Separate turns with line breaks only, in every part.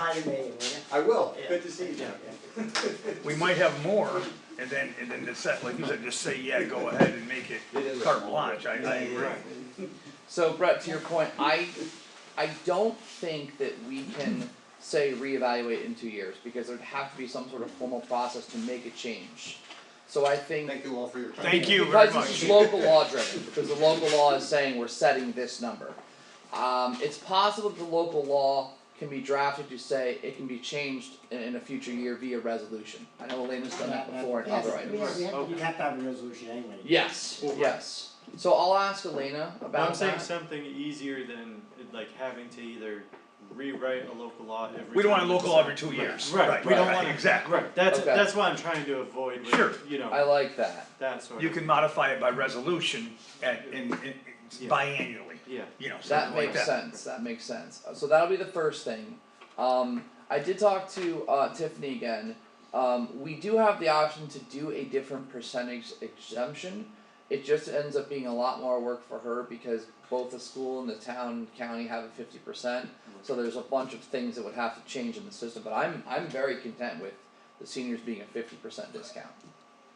remind me, will you?
I will,
Yeah.
good to see you, Jack.
We might have more, and then, and then just set, like you said, just say, yeah, go ahead and make it
It is a
carte
small
blanche, I, I agree.
Right.
So Brett, to your point, I, I don't think that we can say reevaluate in two years, because there'd have to be some sort of formal process to make a change. So I think,
Thank you all for your time.
Thank you very
because
much.
this is local law driven, because the local law is saying we're setting this number. Um, it's possible that the local law can be drafted to say it can be changed in, in a future year via resolution. I know Elena's done that before in
Yes,
other items.
we have- we have- You have to have a resolution anyway.
Yes, yes. So I'll ask Elena about that.
I'm saying something easier than like having to either rewrite a local law every.
We don't want
time
a local
it's-
law every two years,
Right,
right,
we don't
right,
want
exactly.
Right, that's
Okay.
that's what I'm trying to avoid. With,
Sure.
you know
I like that.
that sort
You
of.
can modify it by resolution at, in, in,
Yeah.
biannually,
yeah.
you know, something
That
like
makes
that.
sense, that makes sense. Uh, So that'll be the first thing. Um, I did talk to, uh, Tiffany again. Um, we do have the option to do a different percentage exemption. It just ends up being a lot more work for her because both the school and the town and county have a fifty percent. So there's a bunch of things that would have to change in the system, but I'm, I'm very content with the seniors being a fifty percent discount.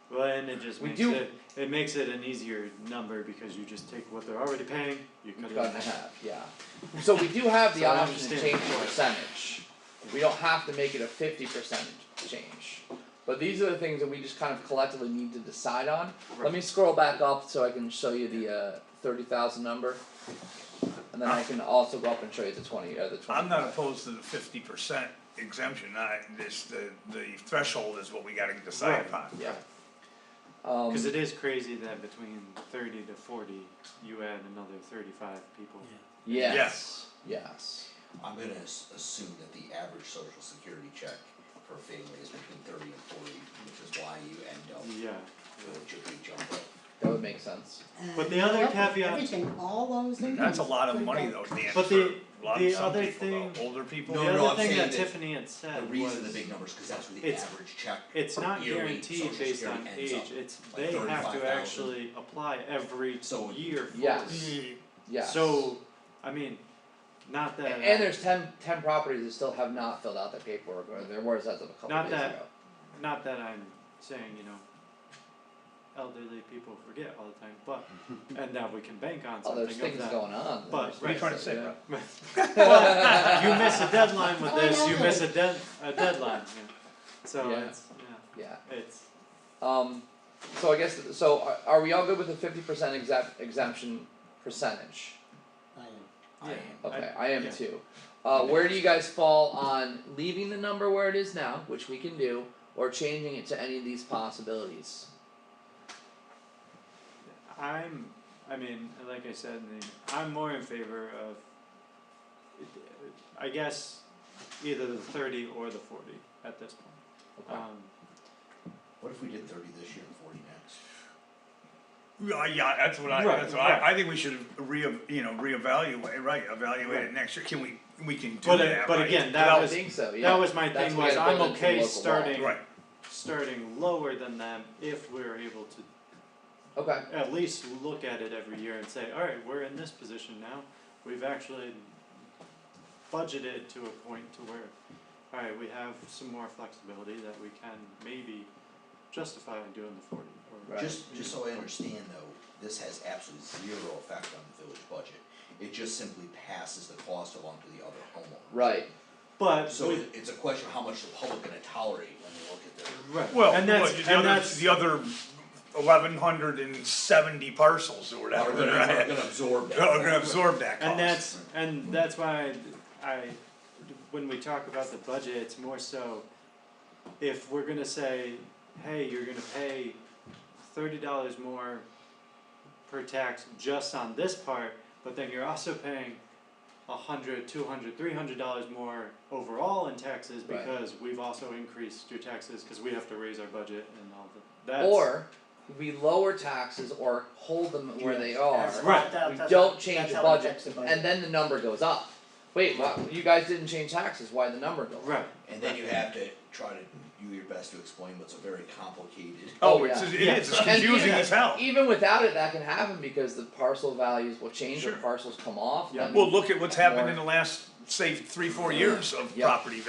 Well, and it just
We
makes
do-
it it makes it an easier number because you just take what they're already paying. You cut it
Cut
in
and a
half.
half, yeah. So we do have the
So I
option to
understand.
change the percentage. We don't have to make it a fifty percent change. But these are the things that we just kind of collectively need to decide on. Let me scroll back up so I can show you the uh thirty thousand number. And then I can also go up and show you the twenty, uh the twenty.
I'm not opposed to the fifty percent exemption, I, this, the, the threshold is what we gotta decide
Right.
upon.
Yeah. Um,
Because it is crazy that between thirty to forty, you add another thirty-five people.
yes, yes.
I'm gonna as- assume that the average social security check for a family is between thirty and forty, which is why you end up
Yeah.
with a big jump up.
That would make sense.
But the other
Yep,
caveat-
Everything, all those things.
That's a lot of
Pretty
money
good.
though, Dan, for
But
a
the-
lot
the
of some
other
people, though,
thing-
older people.
No,
the
no,
other
I'm
thing
saying
that,
that
Tiffany had said
The reason the
was-
big numbers, cause that's where the
It's-
average check,
It's not
yearly
guaranteed
social
based
security
on
ends
age,
up
it's,
like
they have to
35,000.
actually apply every
So
year for
Yes.
it.
Yes.
So, I mean, not that.
And there's 10 10 properties that still have not filled out their paperwork, or there was as of a couple
Not
days
that-
ago.
Not that I'm saying, you know, elderly people forget all the time, but, and that we can bank on
Oh,
something of that.
there's things going on.
But-
There's
What are you
things
trying to
that-
say,
yeah.
bro?
Well, you miss a deadline with
Oh,
this, you
no.
miss a dead, a deadline, yeah, so
Yeah.
it's,
Yeah,
yeah, it's,
um, so I guess, so are, are we all good with the fifty percent exempt, exemption percentage?
I am.
I
Yeah.
am.
Okay, I am
yeah.
too. Uh, where do you guys fall on leaving the number where it is now, which we can do, or changing it to any of these possibilities?
I'm, I mean, like I said, in the- I'm more in favor of, I guess, either the thirty or the forty at this point.
Okay.
Um,
what if we did thirty this year and forty next?
Yeah, yeah, that's what I,
Right,
that's what I,
right.
I think we should re, you know, reevaluate, right, evaluate it
Right.
next year, can we, we can do
But, uh,
that,
but
right?
again, that
I
was-
think so, yeah.
That was my
That's
thing
what
was
I
I'm
built into
okay
local law.
starting,
Right,
starting lower than them if we're able to
Okay,
at least look at it every year and say, alright, we're in this position now. We've actually budgeted to a point to where, alright, we have some more flexibility that we can maybe justify in doing the forty or
Right.
Just, just so I understand though, this has absolutely zero effect on the village budget, it just simply passes the cost along to the other homeowner.
right,
But
So
with-
it- it's a question of how much the public gonna tolerate when they look at their
Right.
well,
and
well,
that's
the
and
other,
that's
the other eleven hundred and seventy parcels or
Are
whatever,
gonna, are
right?
gonna absorb that.
Are gonna absorb that cost.
and that's and that's why I, when we talk about the budget, it's more so if we're gonna say, hey, you're gonna pay thirty dollars more per tax just on this part, but then you're also paying a hundred, two hundred, three hundred dollars more overall in taxes
Right.
because we've also increased your taxes because we have to raise our budget and all the that's
or we lower taxes or hold them where they are.
That's-
Right.
that-
We
that's-
don't
that's
change the
how it
budget,
affects the
and then the number goes up. Wait, why, you guys didn't change taxes, why the number go up?
right.
And then you have to try to do your best to explain what's a very complicated.
Oh,
Oh,
it's,
yeah.
it is, it's
And
confusing
even-
as hell,
Even without it, that can happen because the parcel values will change or
Sure.
parcels come off,
Yeah.
then-
well, look at what's happened
Or-
in the last, say, three, four years of
Yeah.
property